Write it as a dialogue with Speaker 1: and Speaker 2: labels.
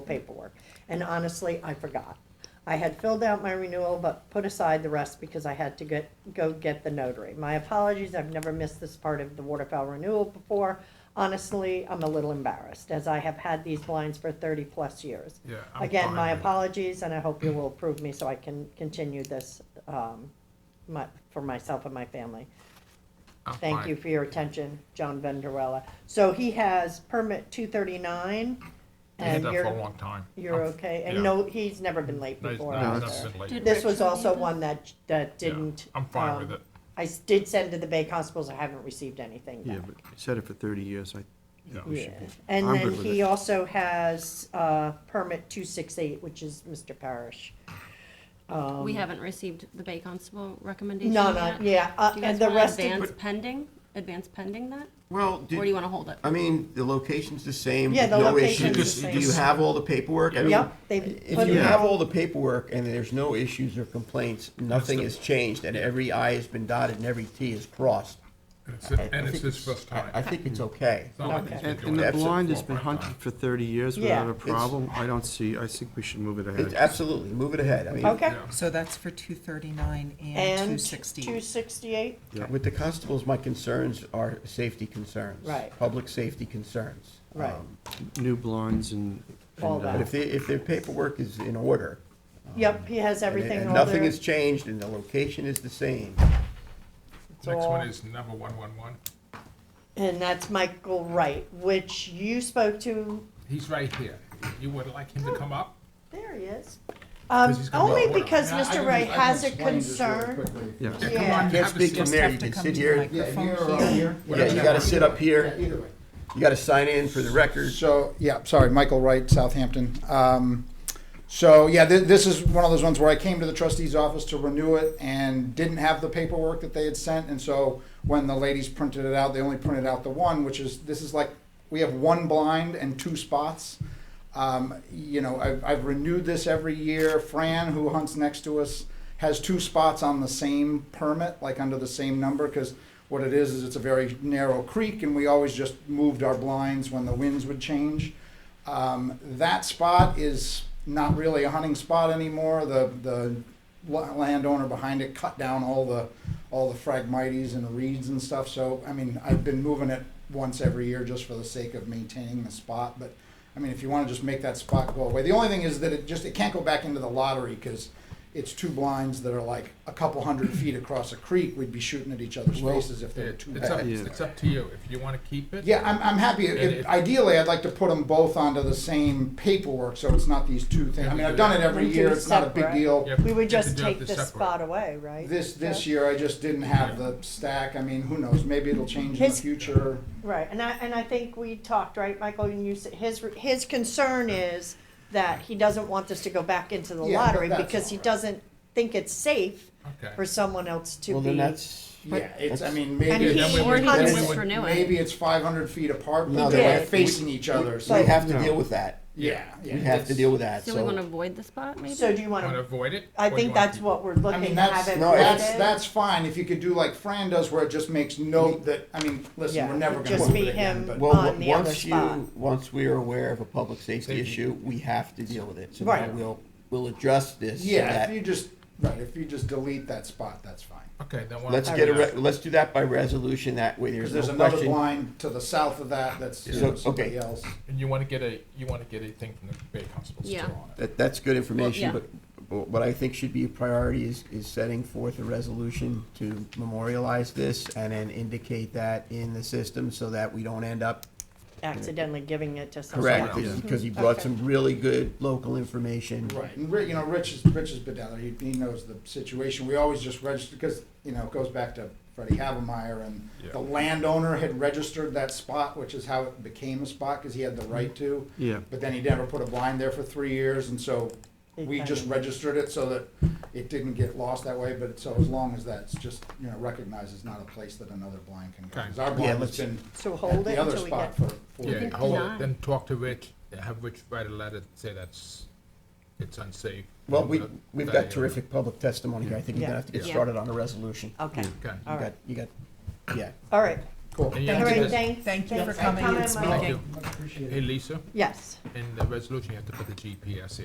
Speaker 1: paperwork. And honestly, I forgot. I had filled out my renewal, but put aside the rest because I had to get, go get the notary. My apologies, I've never missed this part of the waterfowl renewal before. Honestly, I'm a little embarrassed, as I have had these blinds for thirty-plus years.
Speaker 2: Yeah, I'm
Speaker 1: Again,
Speaker 2: fine
Speaker 1: my
Speaker 2: with it.
Speaker 1: apologies, and I hope you will approve me so I can continue this, um, my, for myself and my family.
Speaker 2: I'm
Speaker 1: Thank
Speaker 2: fine.
Speaker 1: you for your attention, John Vanderwella. So he has permit two thirty-nine,
Speaker 2: We had
Speaker 1: and
Speaker 2: that for a
Speaker 1: you're,
Speaker 2: long time.
Speaker 1: you're
Speaker 2: I'm-
Speaker 1: okay, and
Speaker 2: yeah.
Speaker 1: no, he's never been late
Speaker 2: No, it's
Speaker 1: before
Speaker 2: not-
Speaker 3: No,
Speaker 1: either.
Speaker 2: it's not been late.
Speaker 1: This was
Speaker 4: Did
Speaker 1: also
Speaker 4: Rachel need
Speaker 1: one that, that
Speaker 2: Yeah,
Speaker 1: didn't.
Speaker 2: I'm fine with
Speaker 1: um,
Speaker 2: it.
Speaker 1: I s- did send to the Bay Constables, I haven't received anything
Speaker 3: Yeah,
Speaker 1: back.
Speaker 3: but you said it for thirty years, I
Speaker 2: Yeah.
Speaker 3: think we should be.
Speaker 1: And
Speaker 3: I'm
Speaker 1: then
Speaker 3: good with
Speaker 1: he
Speaker 3: it.
Speaker 1: also has, uh, permit two six eight, which is Mr. Parrish.
Speaker 4: We haven't received the Bay Constable recommendation
Speaker 1: No,
Speaker 4: yet.
Speaker 1: no, yeah, uh,
Speaker 4: Do you
Speaker 1: and
Speaker 4: guys
Speaker 1: the
Speaker 4: want
Speaker 1: rest
Speaker 4: to
Speaker 1: of,
Speaker 4: advance pending, advance pending that?
Speaker 5: Well,
Speaker 4: Or do you want to hold it?
Speaker 5: I mean, the location's the same.
Speaker 1: Yeah, the
Speaker 5: no
Speaker 1: location's
Speaker 5: issues.
Speaker 1: the
Speaker 5: Do you
Speaker 1: same.
Speaker 5: have all the paperwork? I mean,
Speaker 1: yep, they put
Speaker 5: If
Speaker 1: it
Speaker 5: you have
Speaker 1: out.
Speaker 5: all the paperwork and there's no issues or complaints, nothing has changed, and every I has been dotted and every T is crossed,
Speaker 2: And it's- And it's his first
Speaker 5: I,
Speaker 2: time.
Speaker 5: I think it's okay.
Speaker 2: It's not like he's been
Speaker 3: And,
Speaker 2: doing
Speaker 3: and the
Speaker 2: it
Speaker 5: Absolutely.
Speaker 3: blind has been
Speaker 2: four or five
Speaker 3: hunted
Speaker 2: times.
Speaker 3: for thirty years
Speaker 1: Yeah.
Speaker 3: without a
Speaker 5: It's-
Speaker 3: problem, I don't see, I think we should move it
Speaker 5: It's
Speaker 3: ahead.
Speaker 5: absolutely, move it ahead. I mean,
Speaker 1: Okay,
Speaker 2: Yeah.
Speaker 6: So that's for two thirty-nine and two
Speaker 1: and
Speaker 6: sixty.
Speaker 1: two sixty-eight?
Speaker 3: Oh.
Speaker 5: With the constables, my concerns are safety concerns.
Speaker 1: Right.
Speaker 5: Public safety concerns.
Speaker 1: Right.
Speaker 5: Um,
Speaker 3: New blinds and.
Speaker 1: All
Speaker 3: and, uh,
Speaker 1: that.
Speaker 5: But if, they- if their paperwork is in order.
Speaker 1: Yep, he has
Speaker 5: and-
Speaker 1: everything.
Speaker 5: And
Speaker 1: all
Speaker 5: nothing
Speaker 1: there.
Speaker 5: has changed and the location is the same.
Speaker 1: It's
Speaker 2: Next
Speaker 1: all-
Speaker 2: one is number one one one.
Speaker 1: And that's Michael Wright, which you spoke to,
Speaker 2: He's right here. You would like him to come up?
Speaker 1: there he is. Um,
Speaker 2: 'Cause he's gonna
Speaker 1: only
Speaker 2: go over.
Speaker 1: because
Speaker 7: Yeah, I
Speaker 1: Mr.
Speaker 7: can-
Speaker 1: Wright
Speaker 7: I can
Speaker 1: has a
Speaker 7: explain this really
Speaker 1: concern.
Speaker 7: quickly.
Speaker 3: Yeah.
Speaker 2: Yeah, come
Speaker 1: Yeah.
Speaker 2: on,
Speaker 5: Can't
Speaker 2: have a
Speaker 5: speak
Speaker 2: seat.
Speaker 5: from there, you can sit here.
Speaker 7: Yeah, here
Speaker 6: Microphone
Speaker 7: or here.
Speaker 5: Yeah, you gotta sit up
Speaker 7: Yeah,
Speaker 5: here,
Speaker 7: either way.
Speaker 5: you gotta sign in for the record.
Speaker 7: So, yeah, sorry, Michael Wright, Southampton. Um, so, yeah, thi- this is one of those ones where I came to the trustee's office to renew it and didn't have the paperwork that they had sent. And so when the ladies printed it out, they only printed out the one, which is, this is like, we have one blind and two spots. Um, you know, I've, I've renewed this every year. Fran, who hunts next to us, has two spots on the same permit, like under the same number, because what it is, is it's a very narrow creek, and we always just moved our blinds when the winds would change. Um, that spot is not really a hunting spot anymore. The, the la- landowner behind it cut down all the, all the phragmites and reeds and stuff, so, I mean, I've been moving it once every year just for the sake of maintaining the spot, but, I mean, if you wanna just make that spot go away, the only thing is that it just, it can't go back into the lottery, cause it's two blinds that are like a couple hundred feet across a creek, we'd be shooting at each other's faces if they were
Speaker 2: It-
Speaker 7: too
Speaker 2: It's up,
Speaker 7: bad.
Speaker 3: Yeah.
Speaker 2: it's up to you. If you want to keep it.
Speaker 7: Yeah, I'm, I'm happy,
Speaker 2: And
Speaker 7: if,
Speaker 2: if-
Speaker 7: ideally, I'd like to put them both onto the same paperwork, so it's not these two things, I mean, I've done it every
Speaker 1: Them two
Speaker 7: year, it's not a big
Speaker 1: separate.
Speaker 7: deal.
Speaker 2: Yep,
Speaker 1: We would
Speaker 2: you can
Speaker 1: just
Speaker 2: do it
Speaker 1: take
Speaker 2: to
Speaker 1: this
Speaker 2: separate.
Speaker 1: spot away, right?
Speaker 7: This, this year, I just didn't have the stack, I mean, who knows, maybe it'll change in the
Speaker 1: His-
Speaker 7: future.
Speaker 1: Right, and I, and I think we talked, right, Michael, and you said, his, his concern is that he doesn't want this to go back into the
Speaker 7: Yeah, but
Speaker 1: lottery
Speaker 7: that's
Speaker 1: because he
Speaker 7: all right.
Speaker 1: doesn't think it's safe
Speaker 2: Okay.
Speaker 1: for someone else to be.
Speaker 5: Well, then that's.
Speaker 7: Yeah, it's, I
Speaker 5: that's-
Speaker 7: mean,
Speaker 1: And
Speaker 7: maybe
Speaker 1: he-
Speaker 7: it's,
Speaker 2: then we would-
Speaker 1: hunts-
Speaker 2: then we would-
Speaker 4: Renew it.
Speaker 7: maybe it's five hundred feet apart,
Speaker 5: No,
Speaker 7: but
Speaker 1: they're
Speaker 7: they're
Speaker 1: like-
Speaker 7: facing each other, so.
Speaker 5: We have to
Speaker 3: No.
Speaker 5: deal with that.
Speaker 7: Yeah, yeah.
Speaker 5: We have to deal with that,
Speaker 4: So we want to
Speaker 5: so.
Speaker 4: avoid the spot, maybe?
Speaker 1: So do you
Speaker 2: Want to
Speaker 1: wanna,
Speaker 2: avoid it?
Speaker 1: I
Speaker 2: or you
Speaker 1: think
Speaker 2: wanna
Speaker 1: that's
Speaker 2: keep
Speaker 1: what we're
Speaker 7: I
Speaker 1: looking
Speaker 7: mean,
Speaker 1: to have
Speaker 7: that's,
Speaker 1: it
Speaker 7: no, that's,
Speaker 1: rated.
Speaker 7: that's fine, if you could do like Fran does, where it just makes note that, I mean, listen,
Speaker 1: Yeah,
Speaker 7: we're never
Speaker 1: it'd
Speaker 7: gonna
Speaker 1: just
Speaker 7: move
Speaker 1: be
Speaker 7: it again,
Speaker 1: him.
Speaker 7: but.
Speaker 5: Well,
Speaker 1: on
Speaker 5: w-
Speaker 1: the other
Speaker 5: once you,
Speaker 1: spot.
Speaker 5: once we're aware of a public safety
Speaker 2: Safety.
Speaker 5: issue, we have to deal with it. So
Speaker 1: Right.
Speaker 5: now we'll, we'll address this. so
Speaker 7: Yeah,
Speaker 5: that-
Speaker 7: if you just, right, if you just delete that spot, that's fine.
Speaker 2: Okay, then why
Speaker 5: Let's
Speaker 2: don't
Speaker 5: get a,
Speaker 2: we-
Speaker 5: re- let's do that by resolution, that way
Speaker 7: Because
Speaker 5: there's
Speaker 7: there's
Speaker 5: no
Speaker 7: another
Speaker 5: question.
Speaker 7: line to the south of that, that's you
Speaker 5: Yeah.
Speaker 7: know,
Speaker 5: So, okay.
Speaker 7: somebody else.
Speaker 2: And you want to get a, you want to get a thing from the Bay Constables too
Speaker 4: Yeah.
Speaker 2: on it.
Speaker 5: That, that's good information,
Speaker 4: Well,
Speaker 5: but but what I think should be a priority is, is setting forth a resolution to memorialize this and then indicate that in the system so that we don't end up
Speaker 1: accidentally giving it to someone
Speaker 5: Correct,
Speaker 1: else.
Speaker 5: because he brought
Speaker 1: Okay.
Speaker 5: some really good local information.
Speaker 7: Right, and Ri- you know, Rich is, Rich is been down there, he, he knows the situation, we always just register, because, you know, it goes back to Freddie Havemeyer, and
Speaker 2: Yeah.
Speaker 7: the landowner had registered that spot, which is how it became a spot, because he had the right to.
Speaker 3: Yeah.
Speaker 7: But then he never put a blind there for three years, and so we just registered it so that it didn't get lost that way, but so as long as that's just, you know, recognized as not a place that another blind can go. 'Cause our blind has
Speaker 5: let's-
Speaker 7: been
Speaker 1: So
Speaker 7: at
Speaker 1: hold it
Speaker 7: the other
Speaker 1: until we
Speaker 7: spot
Speaker 1: get,
Speaker 7: for, for
Speaker 2: Yeah,
Speaker 4: think
Speaker 2: hold it,
Speaker 4: design.
Speaker 2: then talk to Rich, have Rich write a letter, say that's, it's unsafe.
Speaker 5: Well, we,
Speaker 2: That-
Speaker 5: we've
Speaker 2: that
Speaker 5: got
Speaker 2: area.
Speaker 5: terrific public testimony here. I think we're gonna have to get
Speaker 4: Yeah.
Speaker 5: started on a resolution.
Speaker 1: okay,
Speaker 2: Okay.
Speaker 5: You
Speaker 1: All
Speaker 5: got,
Speaker 1: right.
Speaker 5: you got, yeah.
Speaker 1: all right,
Speaker 7: Cool.
Speaker 2: And you have to
Speaker 1: Lorraine,
Speaker 2: just-
Speaker 1: thank,
Speaker 6: Thank you for
Speaker 1: Thanks for
Speaker 6: coming and
Speaker 1: coming, Mike.
Speaker 2: Thank you.
Speaker 6: speaking.
Speaker 7: Much appreciated.
Speaker 2: Hey, Lisa,
Speaker 1: yes.
Speaker 2: in the resolution, you have to put the GPS in.